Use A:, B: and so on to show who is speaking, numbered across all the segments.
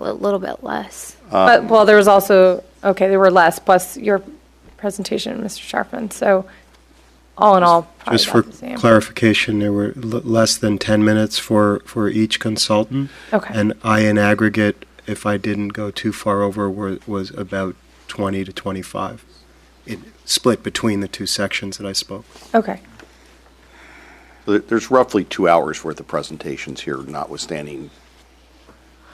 A: a little bit less.
B: Uh,
C: But, well, there was also, okay, there were less, plus your presentation, Mr. Sharpen, so all in all, probably
B: Just for
C: about the same.
B: clarification, there were l- less than 10 minutes for, for each consultant.
C: Mm-hmm. Okay.
B: And I, in aggregate, if I didn't go too far over, were, was about 20 to 25. It split between the two sections that I spoke.
C: Okay,
D: There- There's roughly two hours' worth of presentations here, notwithstanding,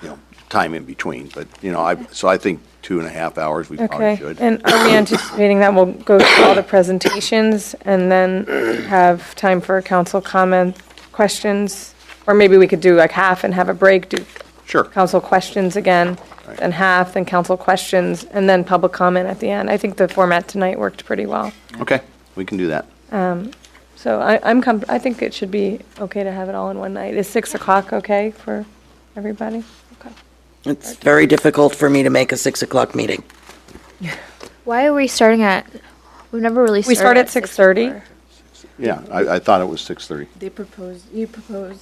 D: you know, time in between. But, you know, I, so I think two and a half hours, we probably
C: okay.
D: should.
C: And are we anticipating that we'll go through all the presentations and then have time for council comment, questions? Or maybe we could do like half and have a break, do
D: Sure.
C: council questions again, then half, then council questions, and then public comment at the end. I think the format tonight worked pretty well.
D: Okay, we can do that.
C: So I, I'm, com- I think it should be okay to have it all in one night. Is 6 o'clock okay for everybody? Okay.
E: It's very difficult for me to make a 6 o'clock meeting.
A: Why are we starting at? We've never really.
C: We start at 6:30?
D: Yeah, I, I thought it was 6:30.
F: They proposed, you proposed.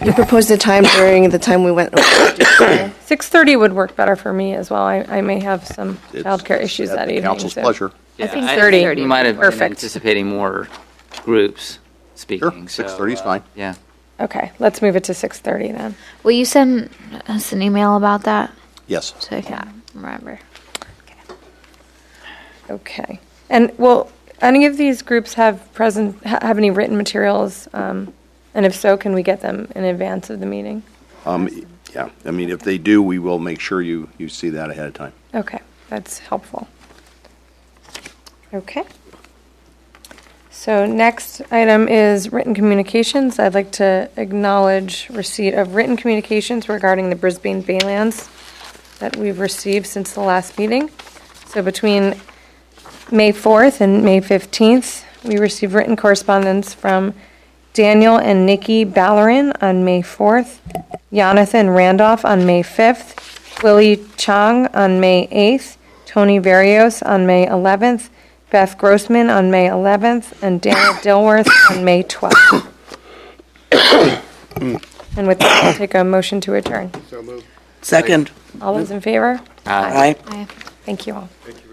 F: You proposed a time during the time we went. over to dinner.
C: 6:30 would work better for me as well. I, I may have some
D: It's-
C: childcare issues
D: at
C: that
D: the
C: evening.
D: Council's
C: so-
D: pleasure.
A: I
G: Yeah,
A: think 30.
G: We might have been
C: Perfect.
G: anticipating more groups speaking. so,
D: 6:30 is
G: uh,
D: fine.
G: Yeah.
C: Okay, let's move it to 6:30 then.
A: Will you send us an email about that
D: Yes.
A: so I can remember?
C: Okay. And will any of these groups have present, ha- have any written materials? Um, And if so, can we get them in advance of the meeting?
D: Um, yeah, I mean, if they do, we will make sure you, you see that ahead of time.
C: Okay, that's helpful. Okay. So next item is written communications. I'd like to acknowledge receipt of written communications regarding the Brisbane Baylands that we've received since the last meeting. So between May 4th and May 15th, we received written correspondence from Daniel and Nikki Ballerin on May 4th, Jonathan Randolph on May 5th, Willie Chong on May 8th, Tony Varios on May 11th, Beth Grossman on May 11th, and Daniel Dilworth on May 12th. And with that, I'll take a motion to adjourn.
E: Second,
C: All those in favor?
E: aye.
A: I
C: Thank you all.
B: Thank you.